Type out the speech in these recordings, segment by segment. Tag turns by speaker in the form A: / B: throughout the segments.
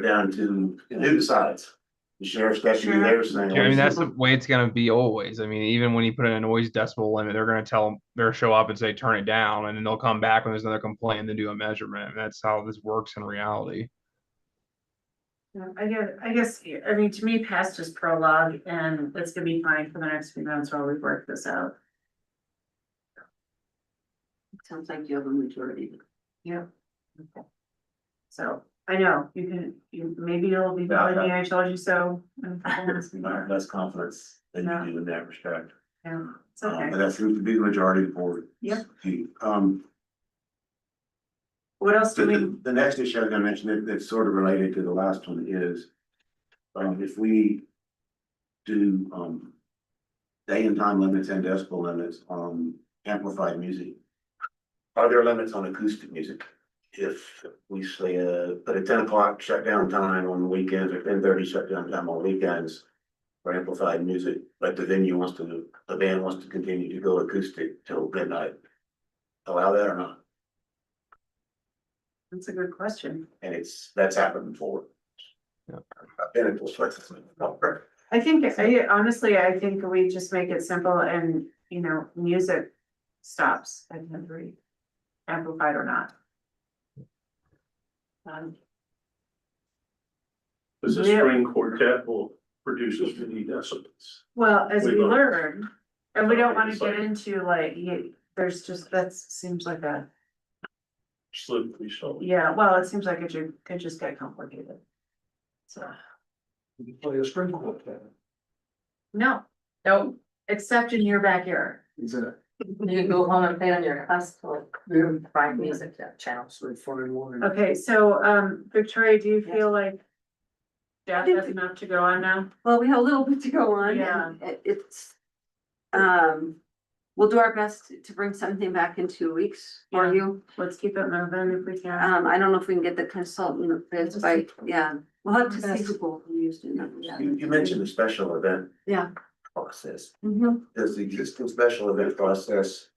A: down to new sides. The sheriff's got to do their thing.
B: Yeah, I mean, that's the way it's gonna be always. I mean, even when you put in a noise decibel limit, they're gonna tell, they're show up and say, turn it down, and then they'll come back when there's another complaint and then do a measurement. And that's how this works in reality.
C: Yeah, I guess, I guess, I mean, to me, past is prologue and it's gonna be fine for the next few months while we work this out.
D: Sounds like you have a majority.
C: Yeah. So I know you can, you, maybe it'll be better than I told you so. in a couple months from
A: Not
C: now.
A: less confidence than you do in that respect.
C: Yeah, It's
A: Um, But
C: okay.
A: that seems to be the majority of the board.
C: Yep.
A: Um,
C: What else
A: the,
C: do
A: the-
C: we,
A: the next issue I was gonna mention that, that's sort of related to the last one is, um, if we do, um, day and time limits and decibel limits on amplified music, are there limits on acoustic music? If we say, uh, put a ten o'clock shutdown time on weekends or ten thirty shutdown time on weekends for amplified music, but the venue wants to, the band wants to continue to go acoustic till midnight, allow that or not?
C: that's a good question.
A: And it's, that's happened before.
B: Yeah.
A: I've been in those places.
C: I think, I honestly, I think we just make it simple and, you know, music stops at every amplified or not. Um,
E: Because the
C: Yeah.
E: string quartet will produce as many decibels.
C: Well, as we
E: We've learned.
C: learn, and we don't wanna
E: It's
C: get
E: like-
C: into like, you, there's just, that seems like a,
E: Slippery, so.
C: yeah, well, it seems like it ju- it just got complicated. So,
E: You play a string quartet.
C: no, no, except in your backyard.
D: You go home and play on your classical, private music channels.
C: Okay, so, um, Victoria, do you feel like Jeff
D: think
C: has
D: that-
C: enough to go on now?
D: Well, we have a little bit to go on.
C: Yeah.
D: and it- It's, um, we'll do our best to- to bring something back in two weeks
C: Yeah.
D: for you.
C: Let's keep it moving if we can.
D: Um, I don't know if we can get the consultant, but it's by, yeah, we'll have to see who will use it. yeah.
A: You, you mentioned the special event.
D: Yeah.
A: Process.
D: Mhm.
A: Does the existing special event process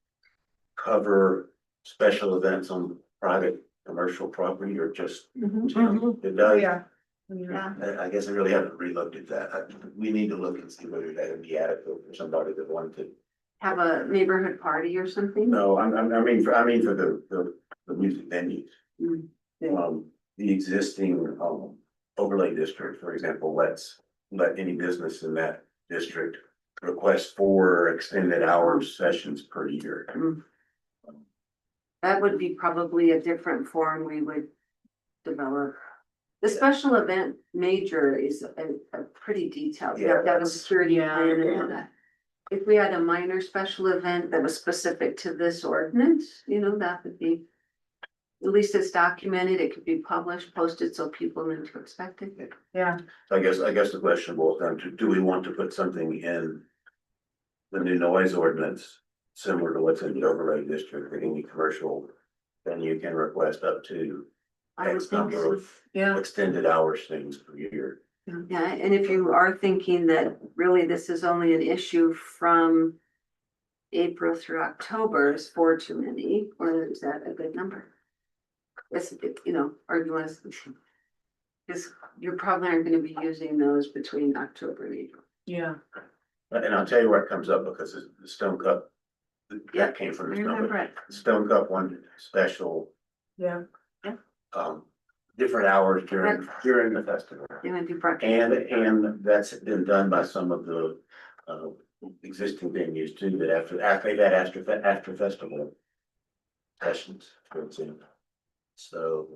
A: cover special events on private commercial property or just?
D: Mhm.
A: It
C: Oh,
A: does?
C: Yeah. Yeah.
A: I, I guess I really haven't relooked at that. I- We need to look and see whether that would be adequate for somebody that wanted to.
D: Have a neighborhood party or something.
A: No, I'm, I'm, I mean, for, I mean, for the, the, the music venues.
D: Mm, yeah.
A: Um, the existing, um, overlay district, for example, lets, let any business in that district request four extended hour
D: Mm.
A: sessions per year.
D: That would be probably a different form we would develop. The special event major is a, a pretty detailed, you have to have a security
C: Yeah.
D: plan and all that. If we had a minor special event that was specific to this ordinance, you know, that would be. At least it's documented, it could be published, posted, so people knew to expect it.
C: Yeah,
A: So I guess, I guess the question boils down to, do we want to put something in the new noise ordinance, similar to what's in the overlay district, that any commercial venue can request up to
D: I would
A: X
D: think
A: number
D: so.
A: of
C: yeah.
A: extended hours things per year.
D: Yeah, and if you are thinking that really this is only an issue from April through October is four too many, or is that a good number? It's, it- you know, or you want to. Because you're probably aren't gonna be using those between October and April.
C: Yeah.
A: Uh, And I'll tell you where it comes up because it's the Stone Cup.
D: Yeah,
A: That came from the Stone
D: Remember
A: Cup.
D: it.
A: Stone Cup one special,
C: Yeah.
A: um, different hours during, during the festival.
D: It might be brought.
A: And, and that's been done by some of the, uh, existing venues too, that after, after they've had after, fe- after festival sessions, for example. So,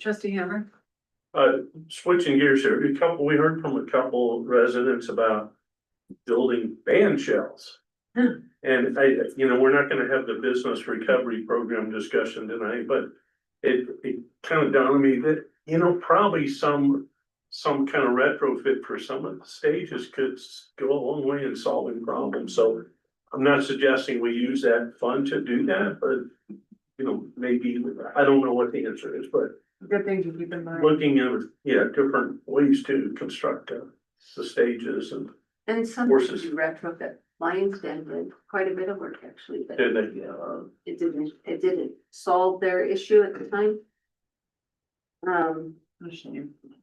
C: Trustee Hammer?
E: Uh, switching gears here, a couple, we heard from a couple residents about building band shells.
C: Hmm.
E: And I, you know, we're not gonna have the business recovery program discussion tonight, but it, it kind of dawned on me that, you know, probably some, some kind of retrofit for some of the stages could s- go a long way in solving problems, so I'm not suggesting we use that fund to do that, but, you know, maybe, I don't know what the answer is, but
C: Good thing to keep in mind.
E: looking at, yeah, different ways to construct uh, the stages and
D: And some
E: Horses.
D: you retrofit, Lions Den did quite a bit of work actually, but
E: did they, uh,
D: it didn't, it didn't solve their issue at the time. Um,
C: A shame.